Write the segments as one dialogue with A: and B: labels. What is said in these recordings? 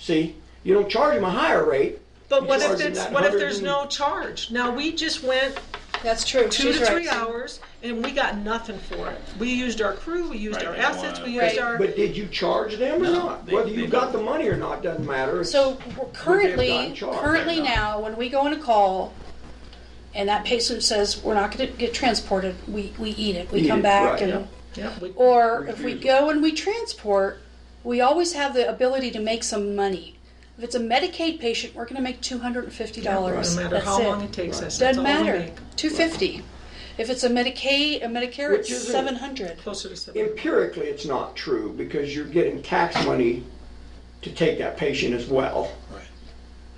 A: See, you don't charge them a higher rate.
B: But
A: You
B: what
A: charge
B: if
A: them
B: it's,
A: that
B: what if
A: 100
B: there's
A: and-
B: no charge? Now, we just went
C: That's true.
B: two
C: She's
B: to three
C: right.
B: hours and we got nothing for it. We used our crew, we used
D: Right,
B: our
D: they don't
B: assets, we
D: wanna-
B: used
C: Right.
B: our,
A: But did you charge them or
D: No,
A: not?
D: they-
A: Whether
D: they
A: you got
D: don't.
A: the money or not doesn't matter. It's-
C: So currently,
A: gotten charged,
C: currently
D: they're not.
C: now, when we go on a call and that patient says, we're not gonna get transported, we, we eat it. We
A: Eat
C: come
A: it,
C: back
A: right,
C: and,
B: yeah, we-
C: or if we go and we transport, we always have the ability to make some money. If it's a Medicaid patient, we're gonna make two hundred and fifty dollars.
B: no matter
C: That's
B: how long
C: it.
B: it takes us, that's
C: Doesn't
B: all we
C: matter.
B: make.
C: Two fifty. If it's a Medicaid, a Medicare,
A: Which
C: it's
A: isn't-
C: seven hundred.
B: Closer to seven.
A: Empirically, it's not true because you're getting tax money to take that patient as well.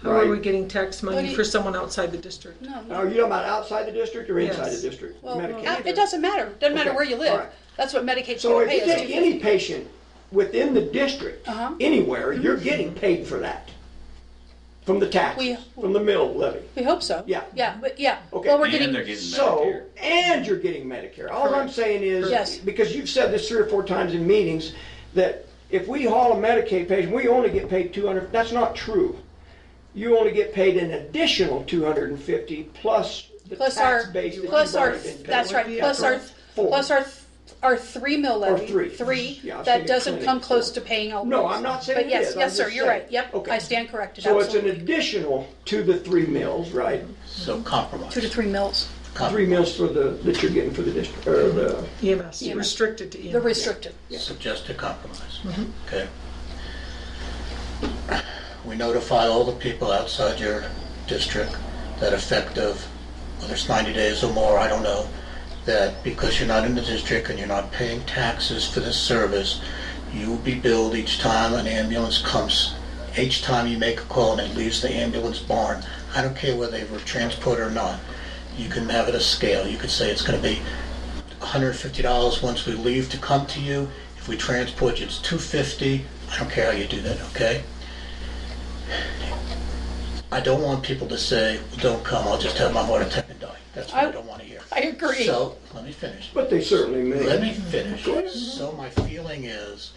B: How are
A: right.
B: we getting tax
C: What do
B: money
C: you-
B: for someone outside the district?
C: No,
A: Now, Are you talking about outside the district or inside
B: Yes.
A: the district?
C: Well,
A: Uh, Medicaid.
C: uh, it doesn't matter. Doesn't matter
A: Okay,
C: where you live.
A: all right.
C: That's what Medicaid's
A: So
C: going
A: if
C: to pay
A: you
C: us.
A: take
C: too.
A: any patient within the district,
C: Uh-huh.
A: anywhere, you're getting paid for that. From the tax,
C: We-
A: from the mill levy.
C: we hope so.
A: Yeah.
C: Yeah. But yeah.
A: Okay.
C: Well, we're
D: And
C: getting.
D: they're getting
A: So,
D: Medicare.
A: and you're getting Medicare. All I'm
B: Correct.
A: saying is,
C: Yes.
A: because you've said this three or four times in meetings, that if we haul a Medicaid patient, we only get paid 200, that's not true. You only get paid an additional 250 plus the
C: plus our
A: tax base that you've
C: plus our
A: already been paid.
C: that's right
B: Would be
C: plus
B: up
C: our
B: to
A: four.
C: plus our our three mill levy
A: three.
C: three
A: Yeah, I was
C: that
A: thinking
C: doesn't
A: clinic,
C: come close
A: four.
C: to paying all
A: No,
C: those.
A: I'm not saying
C: but
A: it
C: yes
A: is, I'm
C: yes sir
A: just
C: you're
A: saying.
C: right yep
A: Okay.
C: I stand corrected
A: So it's an
C: absolutely
A: additional to the three mills, right?
E: So compromise.
C: two to three mills
A: Three mills for the, that you're getting for the district, or the,
B: EMS,
C: EMS.
B: E restricted to E
C: they're
B: EMS.
C: restricted
E: Suggest a compromise. Okay. We notify all the people outside your district that effective, whether it's 90 days or more, I don't know, that because you're not in the district and you're not paying taxes for this service, you will be billed each time an ambulance comes, each time you make a call and it leaves the ambulance barn. I don't care whether they were transported or not. You can have it a scale. You could say it's going to be $150 once we leave to come to you. If we transport you, it's 250. I don't care how you do that, okay? I don't want people to say, don't come, I'll just have my heart attack and die. That's what I,
C: I-
E: don't want to hear.
C: I agree.
E: So, let me finish.
A: but they certainly
E: Let
A: may.
E: me finish. So my feeling is,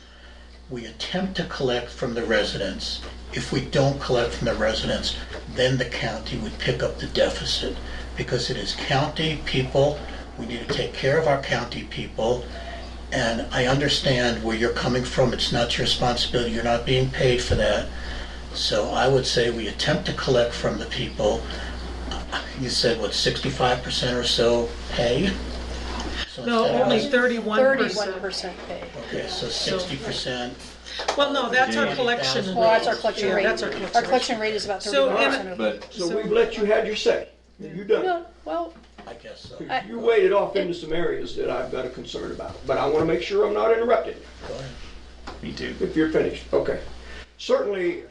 E: we attempt to collect from the residents. If we don't collect from the residents, then the county would pick up the deficit. Because it is county people, we need to take care of our county people. And I understand where you're coming from, it's not your responsibility, you're not being paid for that. So I would say we attempt to collect from the people. You said, what, sixty-five percent or so pay? So
B: No,
E: instead of
B: only
E: us-
B: thirty-one
C: thirty one
B: percent.
C: percent pay
E: Okay, so sixty percent,
B: Well, no, that's our collection.
E: Well,
C: well that's our collection
B: Yeah,
C: rate
B: that's our
C: our
B: collection.
C: collection rate is about thirty
B: So,
C: one percent
B: Emma-
C: of
D: But
A: So we've let you had your say. You done.
C: no well
E: I guess so.
C: I-
A: You waded off into some areas that I've got a concern about, but I want to make sure I'm not interrupted
E: Go ahead.
D: Me too.
A: if you're finished. Okay. Certainly,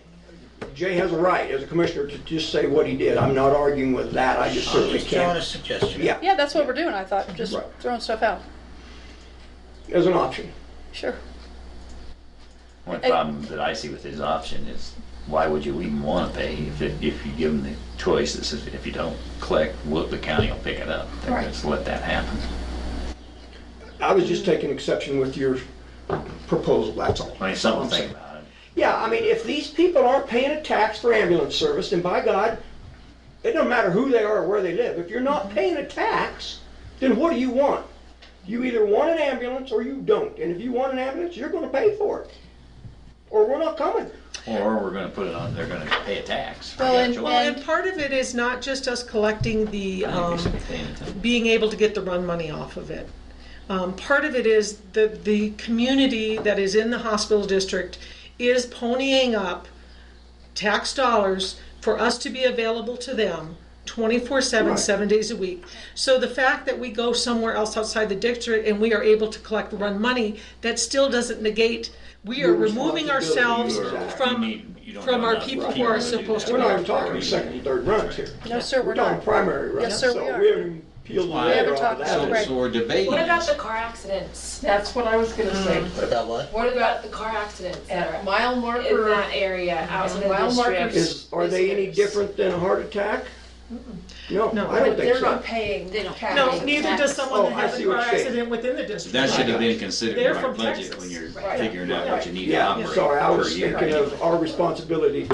A: Jay has a right as a commissioner to just say what he did. I'm not arguing with that. I just
E: I'm
A: certainly
E: Uh, just throwing a
A: can't.
E: suggestion.
A: Yeah,
C: yeah that's what we're doing I thought just
A: Right.
C: throwing stuff out
A: as an option.
C: sure
D: One problem that I see with his option is, why would you even want to pay if, it- if you give them the choice, it's if if you don't collect, well, the county will pick it up. They're gonna just let that happen.
A: I was just taking exception with your proposal, that's all.
D: I mean, something to think about.
A: Yeah, I mean, if these people aren't paying a tax for ambulance service, then by God, it doesn't matter who they are or where they live. If you're
C: Mm-hmm.
A: not paying a tax, then what do you want? You either want an ambulance or you don't. And if you want an ambulance, you're gonna pay for it. Or we're not coming.
D: Or we're gonna put it on, they're gonna pay a tax.
C: Well, and-
B: Well, and part of it is not just us collecting the, um,
D: Well,
B: being able to get the run money off of it. Um, part of it is the the community that is in the hospital district is ponying up tax dollars for us to be available to them 24/7 7 days a week. So the fact that we go somewhere else outside the district and we are able to collect run money that still doesn't negate we are
A: Your
B: removing
A: responsibility.
B: ourselves
A: Exactly.
B: from Um, from our people who are supposed to
A: We're not even talking second and third runs here.
C: no sir
A: We're
C: we're
A: talking
C: not
A: primary runs.
C: Yes, sir, we
A: So
C: are.
A: we haven't even peeled the
F: Why-
A: layer
C: We
A: off
C: haven't
A: of
C: talked-
A: that.
C: Right.
F: So we're debating
G: What about
F: this.
G: the car accidents?
H: That's what I was gonna say.
E: What about what?
G: What about the car accidents that
H: At
G: are
H: mile
G: in
H: marker,
G: that area, out in
H: Mile
G: the
H: markers.
G: district?
A: Is, are they any
G: Visitors.
A: different than a heart attack? No,
B: No,
A: I don't think
F: They're
A: so.
F: not paying
H: They don't
F: taxes.
B: No, neither does someone
A: Oh,
B: that
A: I
B: has a
A: see what
B: car
A: you're saying.
B: accident within the district.
D: That should have been
B: They're
D: considered in our
B: from
D: budget
B: Texas.
D: when you're
F: Right.
D: figuring out what you need to
A: Yeah,
D: operate
A: sorry, I
D: per
A: was
D: year.
A: thinking of our responsibility